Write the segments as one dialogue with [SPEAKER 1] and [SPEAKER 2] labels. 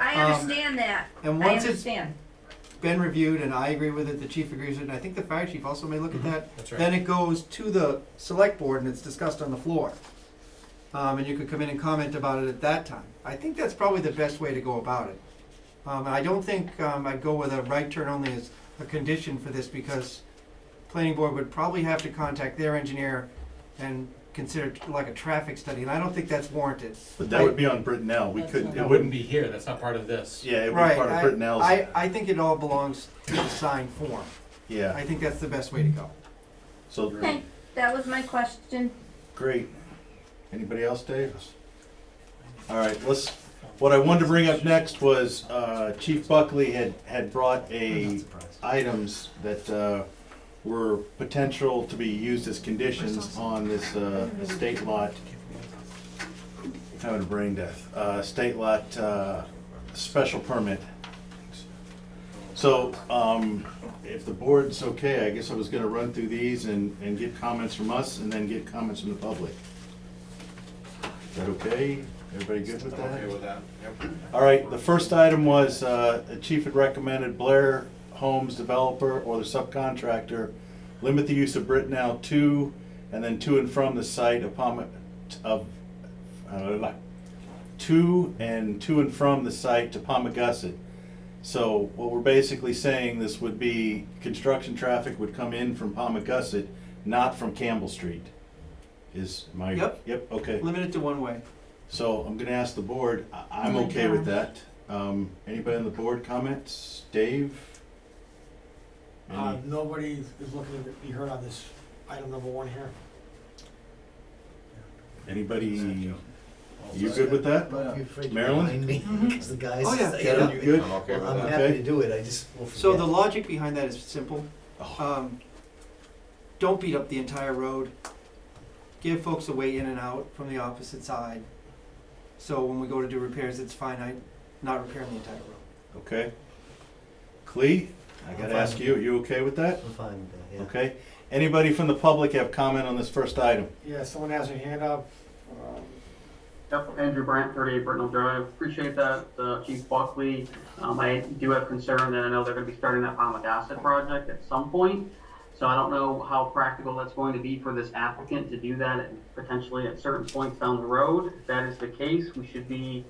[SPEAKER 1] I
[SPEAKER 2] Um,
[SPEAKER 1] understand that.
[SPEAKER 2] and
[SPEAKER 1] I
[SPEAKER 2] once it's
[SPEAKER 1] understand.
[SPEAKER 2] been reviewed and I agree with it, the chief agrees with it, and I think the fire chief also may
[SPEAKER 3] Mm-hmm.
[SPEAKER 2] look at that,
[SPEAKER 4] That's right.
[SPEAKER 2] then it goes to the select board and it's discussed on the floor. Um, and you could come in and comment about it at that time. I think that's probably the best way to go about it. Um, I don't think, um, I'd go with a right turn only as a condition for this because planning board would probably have to contact their engineer and consider it like a traffic study, and I don't think that's warranted.
[SPEAKER 3] But that would be on Brittenell, we couldn't,
[SPEAKER 4] That
[SPEAKER 3] it
[SPEAKER 4] wouldn't
[SPEAKER 3] wouldn't,
[SPEAKER 4] be here, that's not part of this.
[SPEAKER 3] yeah, it would be
[SPEAKER 2] Right,
[SPEAKER 3] part of Brittenell's.
[SPEAKER 2] I, I, I think it all belongs to the sign form. I
[SPEAKER 3] Yeah,
[SPEAKER 2] think that's the best way to go.
[SPEAKER 3] so,
[SPEAKER 1] Okay, that was my question.
[SPEAKER 3] great. Anybody else, Dave? All right, let's, what I wanted to bring up next was, uh, Chief Buckley had, had brought a items that, uh, were potential to be used as conditions on this, uh, estate lot. Having a brain death, uh, state lot, uh, special permit. So, um, if the board's okay, I guess I was gonna run through these and, and get comments from us and then get comments from the public. Is that okay? Everybody good with that?
[SPEAKER 4] Okay with that? Yep.
[SPEAKER 3] All right, the first item was, uh, the chief had recommended Blair Homes developer or the subcontractor limit the use of Brittenell to and then to and from the site upon, of, uh, to and to and from the site to Palmagussit. So what we're basically saying, this would be, construction traffic would come in from Palmagussit, not from Campbell Street. Is my?
[SPEAKER 2] Yep.
[SPEAKER 3] Yep, okay.
[SPEAKER 2] Limit it to one way.
[SPEAKER 3] So I'm gonna ask the board, I- I'm
[SPEAKER 1] Oh my
[SPEAKER 3] okay with
[SPEAKER 1] gosh.
[SPEAKER 3] that. Um, anybody on the board comments? Dave?
[SPEAKER 5] Uh,
[SPEAKER 2] Um,
[SPEAKER 3] Any-
[SPEAKER 5] nobody is looking to be heard on this item number one here.
[SPEAKER 3] Anybody, you good with that?
[SPEAKER 6] Well, you're afraid to
[SPEAKER 3] Marilyn?
[SPEAKER 6] remind me,
[SPEAKER 5] Mm-hmm.
[SPEAKER 1] Mhm.
[SPEAKER 6] 'cause the guys.
[SPEAKER 2] Oh, yeah.
[SPEAKER 3] Kevin, you good?
[SPEAKER 4] I'm okay with
[SPEAKER 6] Well, I'm
[SPEAKER 4] that.
[SPEAKER 6] happy
[SPEAKER 3] Okay.
[SPEAKER 6] to do it, I just will forget.
[SPEAKER 2] So the logic behind that is simple.
[SPEAKER 3] Oh,
[SPEAKER 2] Um, don't beat up the entire road. Give folks a way in and out from the opposite side. So when we go to do repairs, it's finite, not repairing the entire road.
[SPEAKER 3] Okay. Clee, I gotta ask you, are you okay with that?
[SPEAKER 6] I'm fine with that, yeah.
[SPEAKER 3] Okay. Anybody from the public have comment on this first item?
[SPEAKER 5] Yeah, someone has their hand up. Um,
[SPEAKER 7] Yep, Andrew Brandt, 38 Brittenell Drive. Appreciate that, uh, Chief Buckley. Um, I do have concern that I know they're going to be starting that Palma Acid project at some point. So I don't know how practical that's going to be for this applicant to do that at- potentially at certain points down the road. If that is the case, we should be,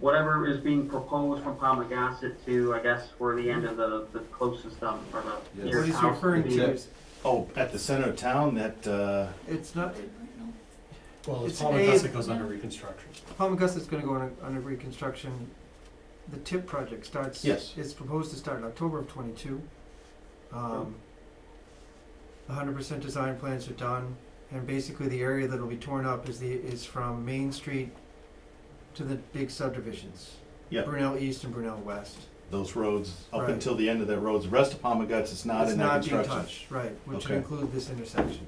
[SPEAKER 7] whatever is being proposed from Palma Acid to, I guess, where the end of the, the closest, um, or the
[SPEAKER 4] Yes.
[SPEAKER 2] What
[SPEAKER 7] nearest
[SPEAKER 2] he's
[SPEAKER 7] house.
[SPEAKER 2] referring to is,
[SPEAKER 3] Oh, at the center of town, that, uh,
[SPEAKER 2] it's not,
[SPEAKER 4] Well,
[SPEAKER 2] It's
[SPEAKER 4] it's
[SPEAKER 2] an
[SPEAKER 4] all of
[SPEAKER 2] A-
[SPEAKER 4] us that goes under reconstruction.
[SPEAKER 2] Palm Augusta's gonna go under, under reconstruction. The tip project starts.
[SPEAKER 3] Yes.
[SPEAKER 2] Is proposed to start in October of twenty-two. Um, hundred percent design plans are done, and basically the area that'll be torn up is the, is from Main Street to the big subdivisions.
[SPEAKER 3] Yeah.
[SPEAKER 2] Brunel East and Brunel West.
[SPEAKER 3] those roads, up
[SPEAKER 2] Right.
[SPEAKER 3] until the end of that road, the rest of Palma Guts is not
[SPEAKER 2] It's
[SPEAKER 3] in that
[SPEAKER 2] being
[SPEAKER 3] construction.
[SPEAKER 2] touched, Right, which would
[SPEAKER 3] Okay.
[SPEAKER 2] include this intersection.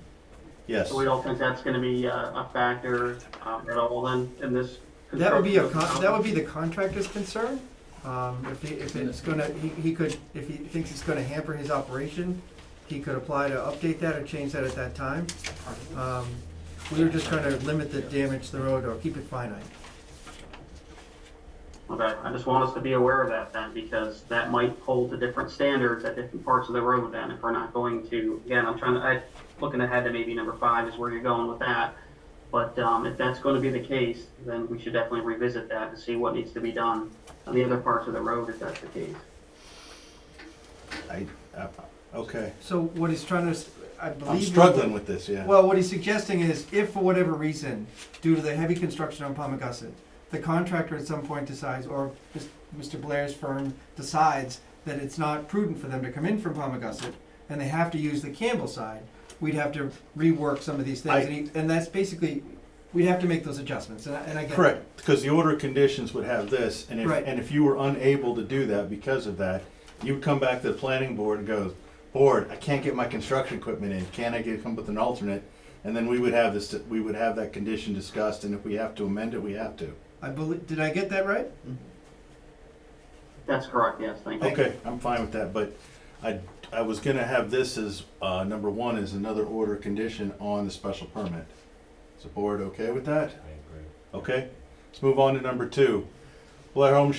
[SPEAKER 3] Yes.
[SPEAKER 7] So we don't think that's going to be uh, a factor um, at all then in this.
[SPEAKER 2] That would be a,
[SPEAKER 7] construction of
[SPEAKER 2] con-
[SPEAKER 7] the
[SPEAKER 2] that
[SPEAKER 7] house?
[SPEAKER 2] would be the contractor's concern. Um, if he, if it's gonna, he, he could, if he thinks it's gonna hamper his operation, he could apply to update that or change that at that time. Um, we were just trying to limit the damage to the road or keep it finite.
[SPEAKER 7] Okay, I just want us to be aware of that then, because that might hold to different standards at different parts of the road then, if we're not going to, again, I'm trying to, I, looking ahead to maybe number five is where you're going with that. But, um, if that's gonna be the case, then we should definitely revisit that and see what needs to be done on the other parts of the road if that's the case.
[SPEAKER 3] I, uh, okay.
[SPEAKER 2] So what he's trying to, s- I believe.
[SPEAKER 3] I'm struggling with this, yeah.
[SPEAKER 2] Well, what he's suggesting is if for whatever reason, due to the heavy construction on Palmagussit, the contractor at some point decides, or Mis- Mr. Blair's firm decides that it's not prudent for them to come in from Palmagussit and they have to use the Campbell side, we'd have to rework some of these
[SPEAKER 3] I-
[SPEAKER 2] things. And, he, and that's basically, we'd have to make those adjustments. And I, and I get it.
[SPEAKER 3] Correct, because the order of conditions would have this, and if,
[SPEAKER 2] Right.
[SPEAKER 3] and if you were unable to do that because of that, you would come back to the planning board and go, board, I can't get my construction equipment in, can I get, come up with an alternate? And then we would have this, we would have that condition discussed, and if we have to amend it, we have to.
[SPEAKER 2] I believe, did I get that right?
[SPEAKER 7] That's correct, yes, thank you.
[SPEAKER 3] Okay, I'm fine with that, but I, I was gonna have this as, uh, number one is another order of condition on the special permit. Is the board okay with that? I agree. Okay, let's move on to number two. Blair Home